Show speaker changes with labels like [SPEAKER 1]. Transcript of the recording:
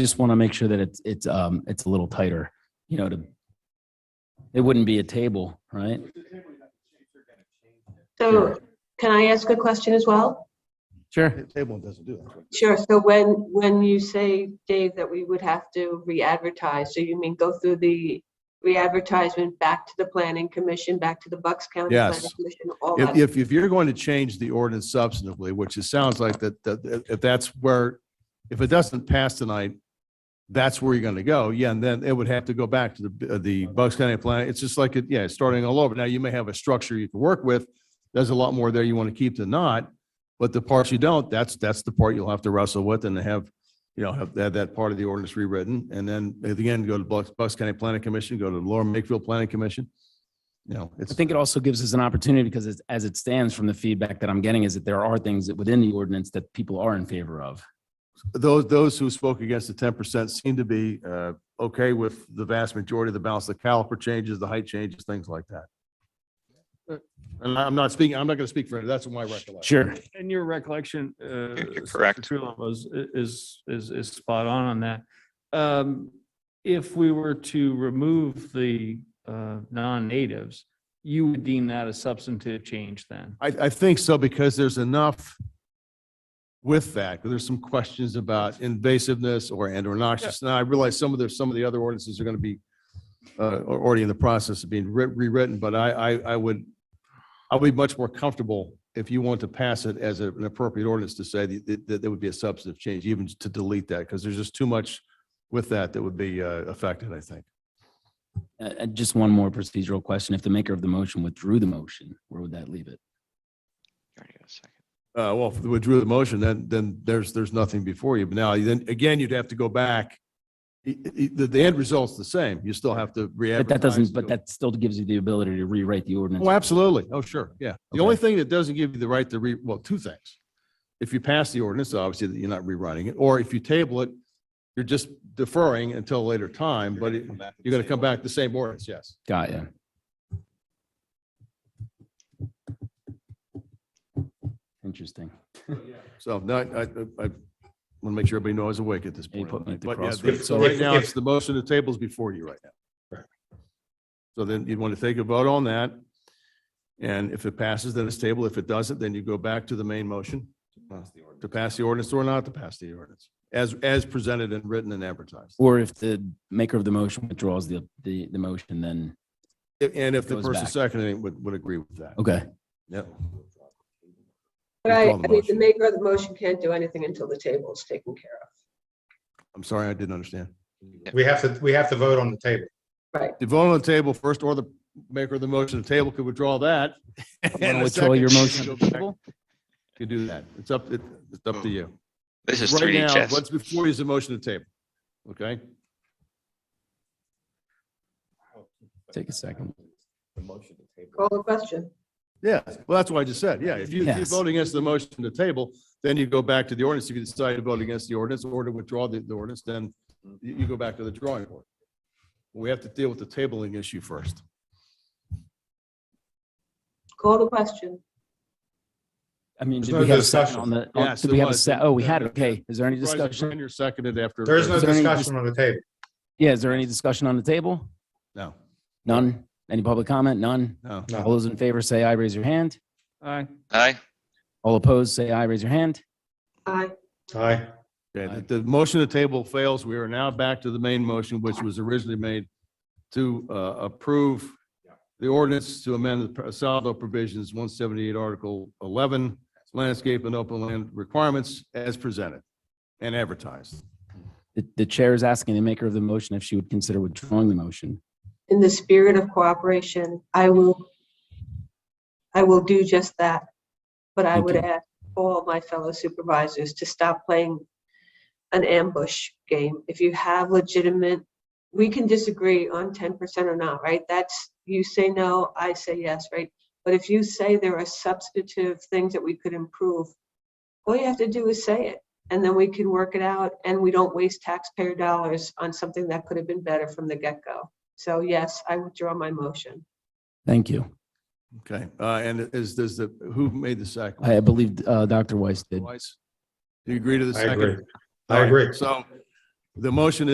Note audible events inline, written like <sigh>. [SPEAKER 1] just want to make sure that it's, it's, um, it's a little tighter, you know, to, it wouldn't be a table, right?
[SPEAKER 2] So can I ask a question as well?
[SPEAKER 1] Sure.
[SPEAKER 3] The Table doesn't do that.
[SPEAKER 2] Sure. So when, when you say, Dave, that we would have to re-advertise, so you mean go through the re-advertisement back to the planning commission, back to the Bucks County?
[SPEAKER 3] Yes.
[SPEAKER 2] Planning Commission, all
[SPEAKER 3] If,
[SPEAKER 2] that?
[SPEAKER 3] if, if you're going to change the ordinance substantively, which it sounds like that, that, if that's where, if it doesn't pass tonight, that's where you're going to go. Yeah, and then it would have to go back to the, uh, the Bucks County plan. It's just like, it yeah, it's starting all over. Now, you may have a structure you can work with. There's a lot more there you want to keep than not, but the parts you don't, that's, that's the part you'll have to wrestle with and have, you know, have that, that part of the ordinance rewritten. And then at the end, go to Bucks, Bucks County Planning Commission, go to Lower Makefield Planning Commission. You know,
[SPEAKER 1] I
[SPEAKER 3] it's.
[SPEAKER 1] think it also gives us an opportunity because it's, as it stands from the feedback that I'm getting is that there are things that within the ordinance that people are in favor of.
[SPEAKER 3] those, those who spoke against the ten percent seem to be uh, okay with the vast majority of the balance, the caliper changes, the height changes, things like that. And I'm not speaking, I'm not going to speak for, that's my recollection.
[SPEAKER 1] Sure.
[SPEAKER 4] And your recollection, uh.
[SPEAKER 5] you're
[SPEAKER 4] Mr.
[SPEAKER 5] correct.
[SPEAKER 4] Truelove was, is, is, is spot on on that. Um, if we were to remove the, uh, non-natives, you would deem that a substantive change then?
[SPEAKER 3] I, I think so because there's enough with that, there's some questions about invasiveness or, and or noxious. Now, I realize some of the, some of the other ordinances are going to be uh, are already in the process of being writ- rewritten, but I, I, I would, I would be much more comfortable if you want to pass it as a- an appropriate ordinance to say that, that- that there would be a substantive change, even to delete that, because there's just too much with that that would be uh, affected, I think.
[SPEAKER 1] Uh, uh, just one more procedural question. If the maker of the motion withdrew the motion, where would that leave it?
[SPEAKER 5] You already got a second.
[SPEAKER 3] Uh, well, if they withdrew the motion, then, then there's, there's nothing before you. But now, then, again, you'd have to go back. I- I- The, the end result's the same. You still have to
[SPEAKER 1] But
[SPEAKER 3] re-advertise.
[SPEAKER 1] that doesn't, but
[SPEAKER 3] do-
[SPEAKER 1] that still gives you the ability to rewrite the ordinance.
[SPEAKER 3] Oh, absolutely. Oh, sure. Yeah. The
[SPEAKER 1] Okay.
[SPEAKER 3] only thing that doesn't give you the right to re, well, two things. If you pass the ordinance, obviously that you're not rewriting it, or if you table it, you're just deferring until a later time, but it- you're going to come back the same ordinance, yes.
[SPEAKER 1] Got ya. Interesting.
[SPEAKER 3] So no, I, I, I want to make sure everybody knows I was awake at this
[SPEAKER 1] You
[SPEAKER 3] point.
[SPEAKER 1] put me at the
[SPEAKER 3] But yeah,
[SPEAKER 1] crossroads.
[SPEAKER 3] So right now, it's the motion to tables before you right now. So then you'd want to take a vote on that. And if it passes, then it's table. If it doesn't, then you go back to the main motion to pass the ordinance or not to pass the ordinance as, as presented and written and advertised.
[SPEAKER 1] Or if the maker of the motion withdraws the, the, the motion, then,
[SPEAKER 3] And if the
[SPEAKER 1] Goes
[SPEAKER 3] person
[SPEAKER 1] back.
[SPEAKER 3] seconding it would, would agree with that.
[SPEAKER 1] okay.
[SPEAKER 3] Yep.
[SPEAKER 2] But I, I mean,
[SPEAKER 3] Withdraw the
[SPEAKER 2] the
[SPEAKER 3] motion.
[SPEAKER 2] maker of the motion can't do anything until the table is taken care
[SPEAKER 3] I'm sorry, I didn't understand.
[SPEAKER 6] We have to, we have to vote on the table.
[SPEAKER 2] of. Right.
[SPEAKER 3] The vote on the table first or the maker of the motion to table could withdraw that.
[SPEAKER 1] wanna
[SPEAKER 3] <laughs> And a
[SPEAKER 1] withdraw your
[SPEAKER 3] second,
[SPEAKER 1] motion.
[SPEAKER 3] go back. You do that. It's up, it- it's up to you.
[SPEAKER 5] This is
[SPEAKER 3] Right
[SPEAKER 5] 3D
[SPEAKER 3] now,
[SPEAKER 5] chess.
[SPEAKER 3] what's before you is a motion to table. Okay?
[SPEAKER 1] Take a second.
[SPEAKER 2] Call the question.
[SPEAKER 3] Yeah, well, that's what I just said. Yeah, if you, if you
[SPEAKER 1] Yes.
[SPEAKER 3] vote against the motion to table, then you go back to the ordinance. If you decide to vote against the ordinance or to withdraw the, the ordinance, then you, you go back to the drawing board. We have to deal with the tabling issue first.
[SPEAKER 2] Call the question.
[SPEAKER 1] I mean,
[SPEAKER 6] There's
[SPEAKER 1] did
[SPEAKER 6] no
[SPEAKER 1] we have a second
[SPEAKER 6] discussion.
[SPEAKER 1] on the, on-
[SPEAKER 3] Yes,
[SPEAKER 1] did
[SPEAKER 3] there
[SPEAKER 1] we have a
[SPEAKER 3] was.
[SPEAKER 1] se, oh, we had, it.
[SPEAKER 3] Yeah.
[SPEAKER 1] okay. Is there any
[SPEAKER 3] Supervisor
[SPEAKER 1] discussion?
[SPEAKER 3] Brenner seconded after.
[SPEAKER 6] There is no
[SPEAKER 1] Is there any
[SPEAKER 6] discussion on the table.
[SPEAKER 1] Yeah, is there any discussion on the table?
[SPEAKER 3] No,
[SPEAKER 1] None? Any public comment? None?
[SPEAKER 3] no.
[SPEAKER 6] No.
[SPEAKER 1] All those in favor say aye, raise your hand.
[SPEAKER 4] Aye.
[SPEAKER 5] Aye,
[SPEAKER 1] All opposed, say aye, raise your hand.
[SPEAKER 2] Aye.
[SPEAKER 6] Aye.
[SPEAKER 3] Okay, the, the motion to table fails. We are now back to the main motion, which was originally made to uh, approve the ordinance to amend the Saldo provisions, 178 Article 11, landscape and open land requirements as presented and advertised.
[SPEAKER 1] The, the chair is asking the maker of the motion if she would consider withdrawing the motion.
[SPEAKER 2] In the spirit of cooperation, I will, I will do just that. But I
[SPEAKER 1] Thank
[SPEAKER 2] would
[SPEAKER 1] you.
[SPEAKER 2] ask all my fellow supervisors to stop playing an ambush game. If you have legitimate, we can disagree on ten percent or not, right? That's, you say no, I say yes, right? But if you say there are substantive things that we could improve, all you have to do is say it. And then we can work it out and we don't waste taxpayer dollars on something that could have been better from the get-go. So yes, I withdraw my motion.
[SPEAKER 1] Thank you.
[SPEAKER 3] Okay, uh, and is, does the, who made the second?
[SPEAKER 1] I I believe, uh, Dr. Weiss did.
[SPEAKER 3] Weiss? Do you agree to the
[SPEAKER 6] I
[SPEAKER 3] second?
[SPEAKER 6] agree. I
[SPEAKER 3] All right,
[SPEAKER 6] agree.
[SPEAKER 3] So The motion